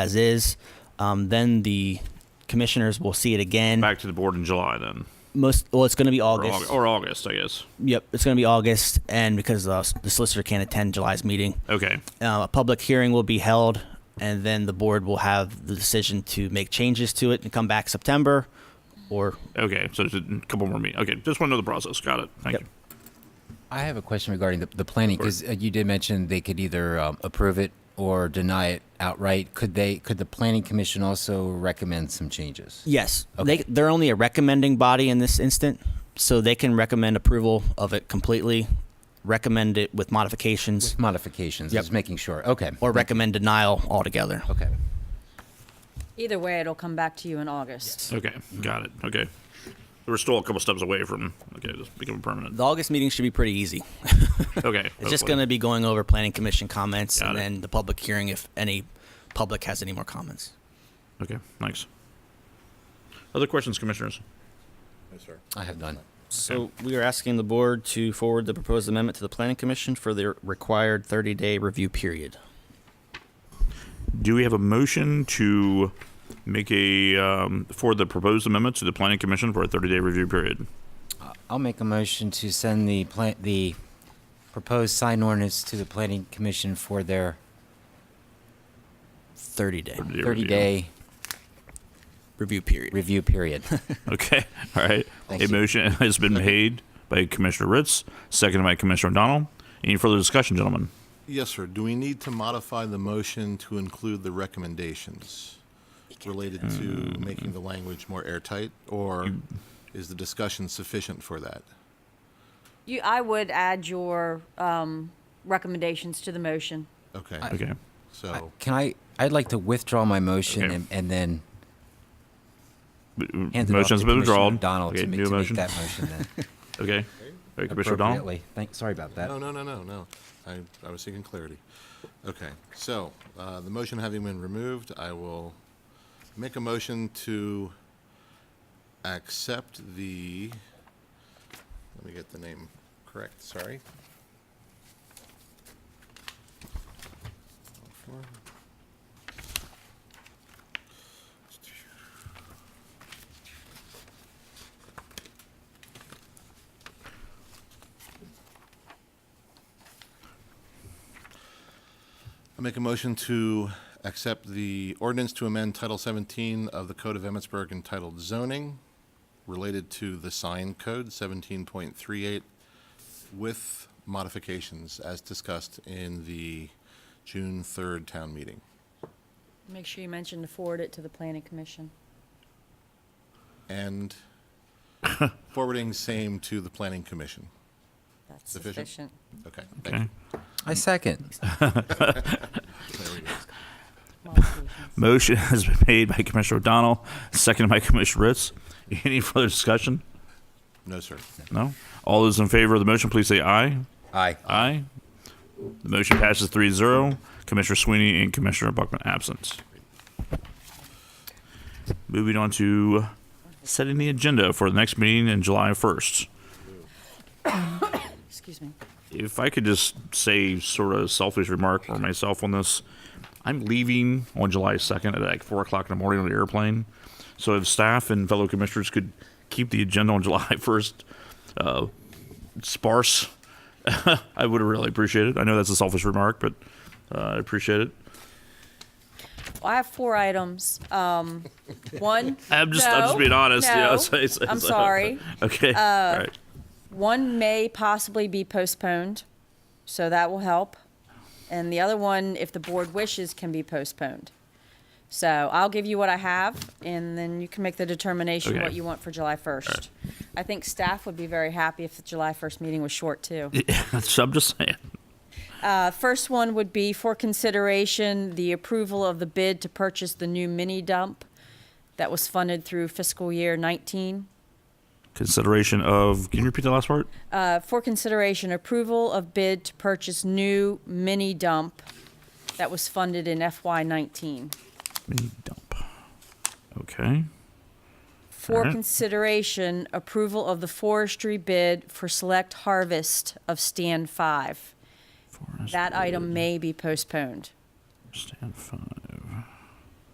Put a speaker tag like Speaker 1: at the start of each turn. Speaker 1: as is. Um, then the commissioners will see it again.
Speaker 2: Back to the board in July then,
Speaker 1: Most well, it's going to be
Speaker 2: or
Speaker 1: August.
Speaker 2: August, or August I guess.
Speaker 1: Yep, it's going to be August, and because uh, the solicitor can't attend July's meeting,
Speaker 2: Okay,
Speaker 1: uh, a public hearing will be held, and then the board will have the decision to make changes to it and come back September, or
Speaker 2: okay. So there's a couple more meetings. Okay, just want to know the process. Got it. Thank
Speaker 1: Yep.
Speaker 2: you.
Speaker 3: I have a question regarding the, the planning because uh, you did mention they could either um, approve it or deny it outright. Could they? Could the planning commission also recommend some changes?
Speaker 1: yes,
Speaker 3: Okay.
Speaker 1: they they're only a recommending body in this instant, so they can recommend approval of it completely, recommend it with modifications,
Speaker 3: Modifications.
Speaker 1: Yep.
Speaker 3: Just making sure. Okay.
Speaker 1: or recommend denial altogether.
Speaker 3: okay.
Speaker 4: Either way, it'll come back to you in August.
Speaker 2: Okay, got it. Okay, we're still a couple steps away from okay, just become permanent.
Speaker 1: The August meeting should be pretty easy.
Speaker 2: Okay,
Speaker 1: It's just going to be going over planning commission comments
Speaker 2: Got
Speaker 1: and
Speaker 2: it.
Speaker 1: then the public hearing if any public has any more comments.
Speaker 2: Okay, thanks. Other questions, commissioners?
Speaker 3: I have none.
Speaker 1: So we are asking the board to forward the proposed amendment to the planning commission for the required 30-day review period.
Speaker 2: Do we have a motion to make a um, for the proposed amendment to the planning commission for a 30-day review period?
Speaker 3: I'll make a motion to send the plan the proposed sign ordinance to the planning commission for their
Speaker 1: 30 day
Speaker 2: 30-day
Speaker 3: thirty day
Speaker 1: review period.
Speaker 3: review period.
Speaker 2: Okay, all right.
Speaker 3: Thank
Speaker 2: a
Speaker 3: you.
Speaker 2: motion has been made by Commissioner Ritz, seconded by Commissioner O'Donnell. Any further discussion, gentlemen?
Speaker 5: Yes, sir. Do we need to modify the motion to include the recommendations related to making the language more airtight? Or is the discussion sufficient for that?
Speaker 4: You, I would add your um, recommendations to the motion.
Speaker 5: Okay,
Speaker 2: Okay.
Speaker 5: so,
Speaker 3: Can I? I'd like to withdraw my motion
Speaker 2: Okay.
Speaker 3: and, and then hand it
Speaker 2: Motion's
Speaker 3: off to
Speaker 2: been withdrawn.
Speaker 3: Commissioner Donald
Speaker 2: Okay,
Speaker 3: to, ma-
Speaker 2: new
Speaker 3: to make
Speaker 2: motion.
Speaker 3: that motion then.
Speaker 2: Okay. All right, Commissioner O'Donnell.
Speaker 3: appropriately. Thank, sorry about that.
Speaker 5: no, no, no, no, no. I, I was seeking clarity. Okay, so, uh, the motion having been removed, I will make a motion to accept the, let me get the name correct, sorry. I make a motion to accept the ordinance to amend Title 17 of the Code of Emmitsburg entitled zoning related to the sign code 17.38 with modifications as discussed in the June 3rd town meeting.
Speaker 4: Make sure you mention to forward it to the planning commission.
Speaker 5: And forwarding same to the planning commission.
Speaker 4: That's
Speaker 5: Sufficient?
Speaker 4: sufficient.
Speaker 5: Okay, thank
Speaker 2: Okay.
Speaker 5: you.
Speaker 3: I second.
Speaker 5: There we go.
Speaker 4: Modifications.
Speaker 2: Motion has been made by Commissioner O'Donnell, seconded by Commissioner Ritz. Any further discussion?
Speaker 5: No, sir.
Speaker 2: No? All those in favor of the motion, please say aye.
Speaker 3: Aye.
Speaker 2: Aye. The motion passes 3 0. Commissioner Sweeney and Commissioner Buckman absent. Moving on to setting the agenda for the next meeting in July 1st.
Speaker 4: Excuse me.
Speaker 2: If I could just say, sort of selfish remark for myself on this, I'm leaving on July 2nd at like 4 o'clock in the morning on the airplane. So if staff and fellow commissioners could keep the agenda on July 1st uh, sparse, I would really appreciate it. I know that's a selfish remark, but uh, I appreciate it.
Speaker 4: Well, I have four items. Um, one.
Speaker 2: I'm just, I'm just being honest.
Speaker 4: No,
Speaker 2: yeah,
Speaker 4: no,
Speaker 2: it's- it's-
Speaker 4: I'm
Speaker 2: it's-
Speaker 4: sorry. Uh,
Speaker 2: Okay. All right.
Speaker 4: One may possibly be postponed, so that will help. And the other one, if the board wishes, can be postponed. So I'll give you what I have, and then you can make the determination
Speaker 2: Okay.
Speaker 4: what you want for July 1st. I think staff would be very happy if the July 1st meeting was short, too.
Speaker 2: So I'm just saying.
Speaker 4: Uh, First one would be for consideration, the approval of the bid to purchase the new mini dump that was funded through fiscal year 19.
Speaker 2: Consideration of, can you repeat the last part?
Speaker 4: Uh, for consideration, approval of bid to purchase new mini dump that was funded in FY nineteen.
Speaker 2: Mini dump. Okay.
Speaker 4: For
Speaker 2: Alright.
Speaker 4: consideration, approval of the forestry bid for select harvest of stand five.
Speaker 2: Forest
Speaker 4: That item
Speaker 2: Road,
Speaker 4: may be postponed.
Speaker 2: Stand five.